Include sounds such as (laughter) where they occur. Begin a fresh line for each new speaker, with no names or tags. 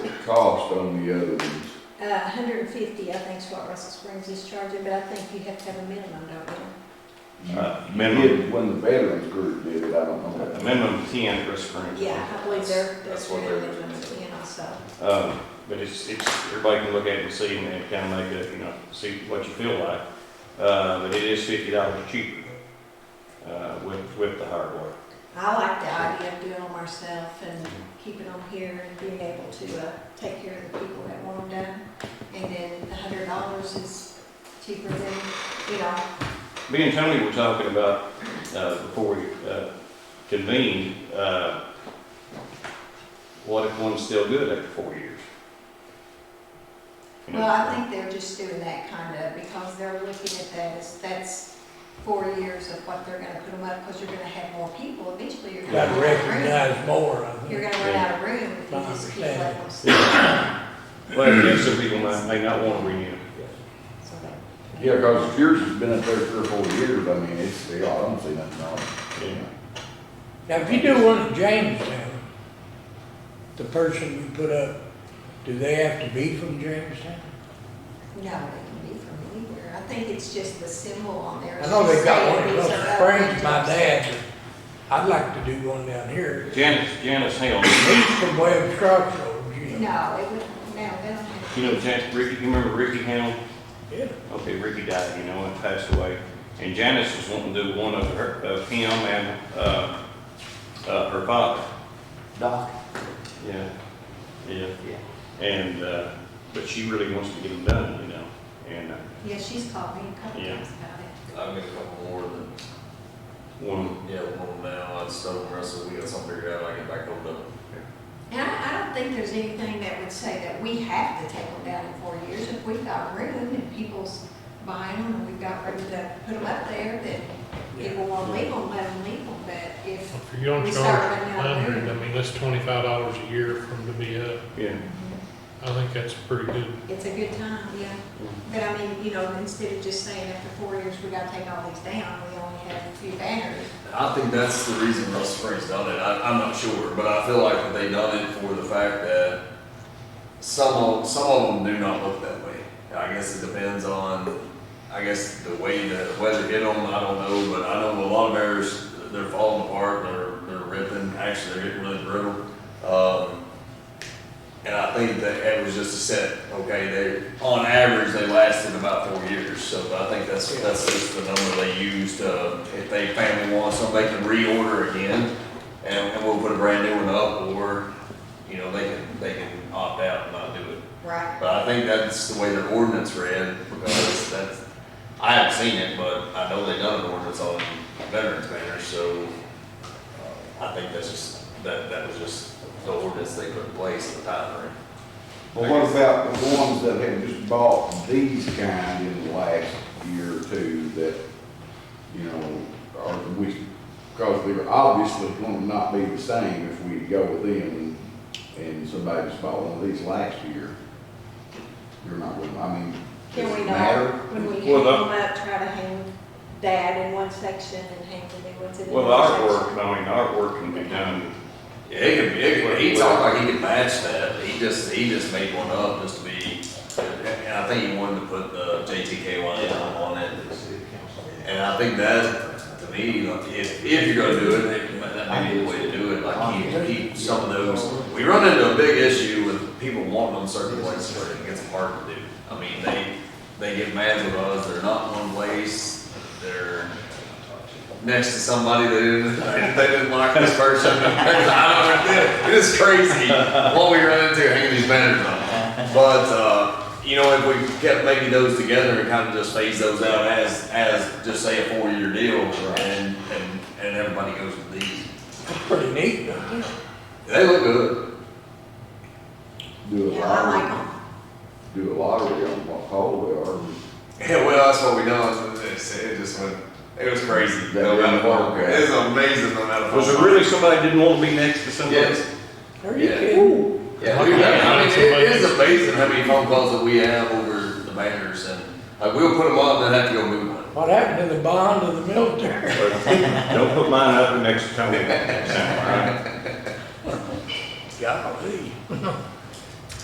cost on the other ones?
Uh, hundred and fifty, I think, is what Russell Springs is charging, but I think you have to have a minimum, don't you?
You
Uh, minimum.
did When the veterans group did it, I don't know.
A minimum of ten for spring.
Yeah, I believe there, there's
That's
a
what they're
minimum of ten also.
Um, but it's, it's, everybody can look at it and see and kind of make a, you know, see what you feel like. Uh, but it is fifty dollars cheaper, uh, with, with the hardware.
I like the idea of doing them myself and keeping them here and being able to, uh, take care of the people that want them done. And then the hundred dollars is cheaper than, you know,
Me and Tony were talking about, uh, before we, uh, convened, uh, what if one's still good after four years? You know,
Well, I think they're just doing that kind of, because they're looking at that as, that's four years of what they're gonna put them up, because you're gonna have more people, eventually you're gonna
Got to
run out of room.
recognize more of
You're
it.
gonna run out of room if you just keep letting them sit,
But yeah, some people might, may not want to renew.
so that-
Yeah, cause yours has been up there three or four years, I mean, it's, I don't see nothing on
Yeah.
it.
Now, if you do one at Jamestown, the person you put up, do they have to be from Jamestown?
No, they can be from anywhere, I think it's just the symbol on there.
I know they got one
It's
in
just
Little
saying these are
Springs, my
outrageous.
dad, but I'd like to do one down here.
Janice, Janice Hale,
It's from Webb's Crossroads, you know.
No, it would, no, they don't have.
you know Janice, Ricky, you remember Ricky Hale?
Yeah.
Okay, Ricky died, you know, and passed away. And Janice was wanting to do one of her, of him and, uh, uh, her father.
Doc?
Yeah. Yeah. Yeah. And, uh, but she really wants to get them done, you know, and, uh,
Yeah, she's called me a couple
Yeah.
times about it.
I've got a couple more than,
one,
yeah, one now, I just told Russell, we got something figured out, I get back hold up.
And I, I don't think there's anything that would say that we have to take them down in four years. If we've got room and people's buying them and we've got room to put them up there, then people won't leave them, let them leave them. But if,
If you're gonna
We start
charge
running out of
hundred, I mean, that's twenty-five dollars a year for them to be up.
yeah.
I think that's pretty good.
it's a good time, yeah.
Mm-hmm.
But I mean, you know, instead of just saying after four years, we gotta take all these down, we only have a few banners.
I think that's the reason Russell Springs done it, I, I'm not sure, but I feel like they done it for the fact that some of, some of them do not look that way. I guess it depends on, I guess, the way the weather hit them, I don't know, but I know a lot of bears, they're falling apart, they're, they're ripping, actually, they're getting really brittle. Um, and I think that it was just a set, okay, they, on average, they lasted about four years, so I think that's, that's just the number they used, uh, if they family wants them, they can reorder again, and, and we'll put a brand new one up, or, you know, they can, they can opt out and not do it.
Right.
But I think that's the way their ordinance read, because that's, I haven't seen it, but I know they done an ordinance on veterans banners, so uh, I think that's just, that, that was just the ordinance they put in place at the time, right?
Well, what about the ones that have just bought these kind in the last year or two that, you know, are, we, because they're obviously going to not be the same if we go with them and somebody just bought one of these last year. You're not, with them. I mean, does
Can we
it
not,
matter?
when we hang
Well,
them up, try to hang that in one section and hang the new ones in the
Well,
other section?
artwork, I mean, artwork can be done,
Yeah, he could, he could, he talked like he could match that, he just, he just made one up just to be, and I think he wanted to put the JTKY on it. And I think that, to me, like, if, if you're gonna do it, that might be the way to do it, like keep, keep some of those. We run into a big issue with people wanting them certain places where it gets hard to do. I mean, they, they get mad with us, they're not in one place, they're next to somebody that didn't, (laughs) they didn't like this person. (laughs) I don't know, it is crazy what we run into hanging these banners on. But, uh, you know, if we kept maybe those together and kind of just phase those out as, as just say a four-year deal and, and, and everybody goes with these.
It's pretty neat, though.
They look good.
Do a
Yeah, I like
lottery,
'em.
do a lottery on what pole they are.
Yeah, well, that's what we done. It just, it just went, it was crazy.
That didn't work, yeah.
It was amazing the amount of.
was there really somebody didn't want to be next to somebody?
Yes.
Are you
Yeah.
kidding?
Yeah, we, I mean, it is amazing how many phone calls that we have over the banners and, like, we'll put them up and then have to go move one.
What happened to the bond of the military? (laughs)
(laughs) Don't put mine up next to Tony. All right.
Golly.